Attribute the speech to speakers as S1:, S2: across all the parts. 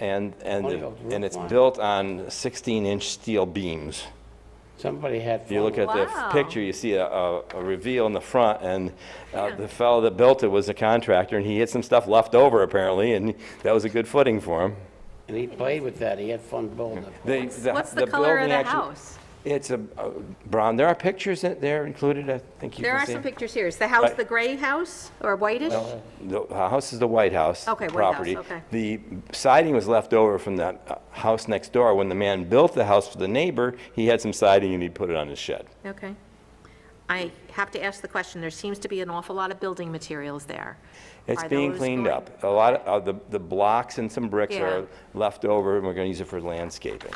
S1: And, and,
S2: Only goes
S1: and it's
S2: roof line.
S1: built on 16-inch steel beams.
S2: Somebody had
S1: If you look
S2: fun.
S1: at the f-
S3: Wow.
S1: picture, you see a, a a reveal in the front, and uh, the fellow that built it was a contractor, and he had some stuff left over apparently, and that was a good footing for him.
S2: And he played with that, he had fun building it.
S1: They-
S3: What's the color
S1: building
S3: of the
S1: actually-
S3: house?
S1: It's a a brown, there are pictures in there included, I think you
S3: There
S1: can
S3: are
S1: see.
S3: some pictures here. Is the house
S1: Right.
S3: the gray house or whitish?
S1: The house is the White House
S3: Okay, White House,
S1: property.
S3: okay.
S1: The siding was left over from that uh, house next door. When the man built the house for the neighbor, he had some siding and he put it on his shed.
S3: Okay. I have to ask the question, there seems to be an awful lot of building materials there.
S1: It's
S3: Are
S1: being
S3: those
S1: cleaned
S3: going-
S1: up. A lot of, uh, the, the blocks and some bricks
S3: Yeah.
S1: are left over, and we're gonna use it for landscaping.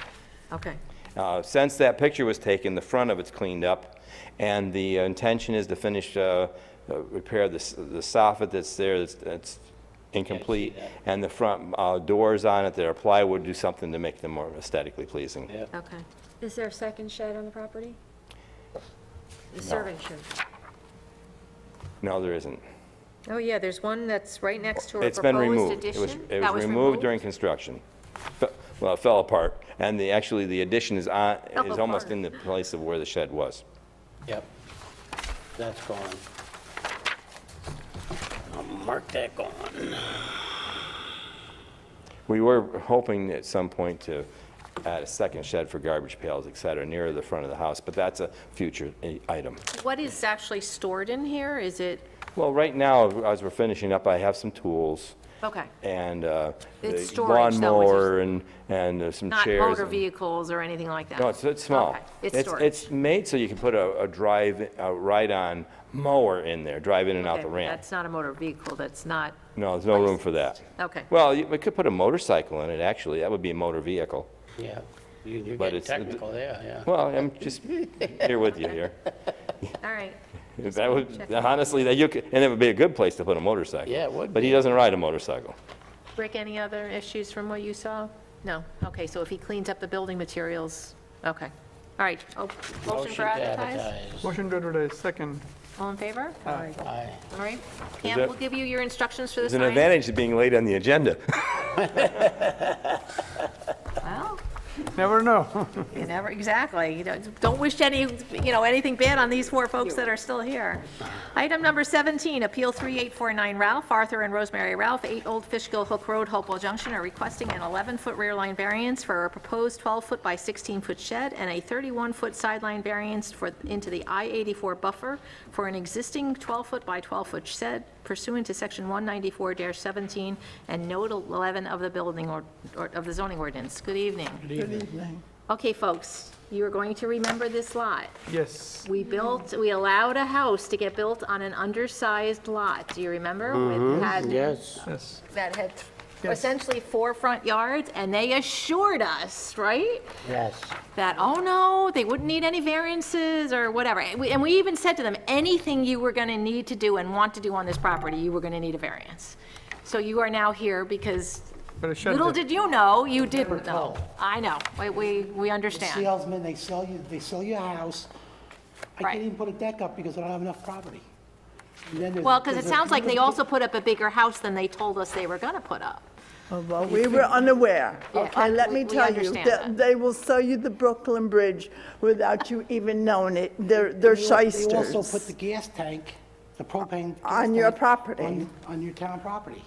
S3: Okay,
S1: Uh, Since that picture was taken, the front of it's cleaned up, and the uh, intention is to finish, uh, uh, repair the, s- the soffit that's there, that's, that's incomplete,
S2: that.
S1: and the front uh, doors on it that are plywood, do something to make them more aesthetically pleasing.
S2: Yeah.
S3: okay.
S4: Is there a second shed on the property? The serving shed?
S1: No, there isn't.
S3: Oh, yeah, there's one that's right next to a
S1: It's been
S3: proposed
S1: removed. It was-
S3: addition.
S1: It
S3: That
S1: was removed during construction. Fe- Well, it fell apart, and the, actually, the addition is on,
S3: Fell
S1: is almost
S3: apart.
S1: in the place of where the shed was.
S2: Yep. That's gone. I'll mark that gone.
S1: We were hoping at some point to add a second shed for garbage pails, et cetera, nearer the front of the house, but that's a future i- item.
S3: What is actually stored in here? Is it,
S1: Well, right now, as we're finishing up, I have some tools
S3: okay,
S1: and uh, the
S3: It's storage, though, is it-
S1: lawnmower and, and uh, some
S3: not
S1: chairs.
S3: motor
S1: and-
S3: vehicles or anything like that?
S1: No, it's, it's small.
S3: Okay, It's storage.
S1: It's made so you can put a, a drive, a ride-on mower in there, drive in and out
S3: Okay,
S1: the ramp.
S3: That's not a motor vehicle, that's not,
S1: No, there's no room for that.
S3: okay.
S1: Well, you- we could put a motorcycle in it, actually. That would be a motor vehicle.
S2: Yeah. You- You're
S1: But
S2: getting
S1: it's-
S2: technical there, yeah.
S1: Well, I'm just here with you here.
S3: All right,
S1: If That would, honestly, that you could, and it would be a good place to put a motorcycle.
S2: Yeah, it would
S1: But he
S2: be.
S1: doesn't ride a motorcycle.
S3: Rick, any other issues from what you saw? No, okay, so if he cleans up the building materials, okay. All right, Oh, motion for
S2: to
S3: advertise?
S2: advertise.
S5: Motion to advertise, second.
S3: All in favor? All
S2: Aye.
S3: right, Pam,
S1: Uh, that-
S3: we'll give you your instructions for the
S1: There's an
S3: sign.
S1: advantage to being late on the agenda.
S3: Well,
S5: Never know.
S3: you never, exactly, you know, don't wish any, you know, anything bad on these four folks that are still here. Item number 17, Appeal 3849 Ralph, Arthur and Rosemary Ralph, 8 Old Fishkill Hook Road, Hopewell Junction, are requesting an 11-foot rear line variance for a proposed 12-foot by 16-foot shed and a 31-foot sideline variance for, into the I-84 buffer for an existing 12-foot by 12-foot shed pursuant to Section 194-17 and Note 11 of the building or, or- of the zoning ordinance. Good evening. Okay, folks, you are going to remember this lot.
S5: Yes.
S3: We built, we allowed a house to get built on an undersized lot, do you remember? With had,
S2: Yes.
S5: Yes.
S3: that had
S5: Yes.
S3: essentially four front yards, and they assured us, right?
S2: Yes.
S3: That, oh no, they wouldn't need any variances or whatever. And we, and we even said to them, anything you were gonna need to do and want to do on this property, you were gonna need a variance. So you are now here because
S5: But it should
S3: little
S5: be.
S3: did you know, you didn't know.
S6: told.
S3: I know, we, we, we understand.
S6: Salesmen, they sell you, they sell you a house. I
S3: Right.
S6: can't even put a deck up because I don't have enough property. And then there's-
S3: Well, because it
S6: there's a
S3: sounds like they
S6: few-
S3: also put up a bigger house than they told us they were going to put up.
S7: Well, we were unaware,
S3: Yeah,
S7: okay, let
S3: we-
S7: me
S3: we
S7: tell you.
S3: understand
S7: they-
S3: that.
S7: They will sell you the Brooklyn Bridge without you even knowing it. They're, they're
S6: They also put
S7: shysters.
S6: the gas tank, the propane. gas
S7: On your
S6: tank
S7: property.
S6: On, on your town property.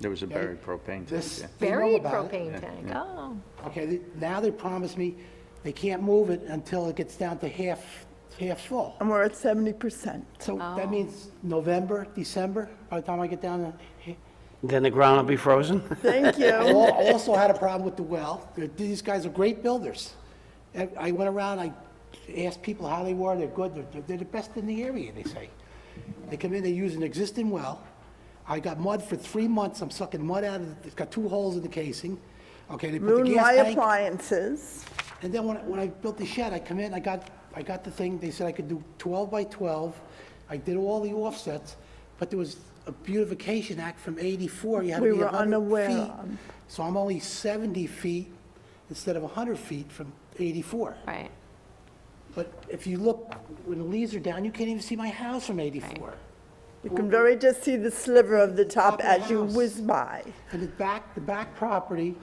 S8: There was a buried propane tank,
S6: This,
S8: yeah.
S6: they know
S3: Buried
S6: about it.
S3: propane tank, oh.
S6: Okay, they- now they promise me they can't move it until it gets down to half, half full.
S7: And we're at seventy percent.
S6: So
S3: Oh.
S6: that means November, December, by the time I get down to. ha-
S2: Then the ground will be frozen?
S7: Thank
S6: I
S7: you.
S6: al- also had a problem with the well. They're- These guys are great builders. And I went around, I asked people how they were, they're good, they're, they're the best in the area, they say. They come in, they use an existing well. I got mud for three months, I'm sucking mud out of, it. it's got two holes in the casing. Okay, they put the gas
S7: Moonlight
S6: tank.
S7: appliances,
S6: And then when, I- when I built the shed, I come in, I got, I got the thing, they said I could do 12 by 12. I did all the offsets, but there was a beautification act from 84, you had to
S7: We
S6: be
S7: were
S6: 100
S7: unaware
S6: feet.
S7: of.
S6: So I'm only 70 feet instead of 100 feet from 84.
S3: Right,
S6: But if you look, when the leaves are down, you can't even see my house from 84.
S7: you can very just see the sliver of the
S6: Top
S7: top
S6: of the
S7: as you
S6: house.
S7: whiz by.
S6: And the back, the back property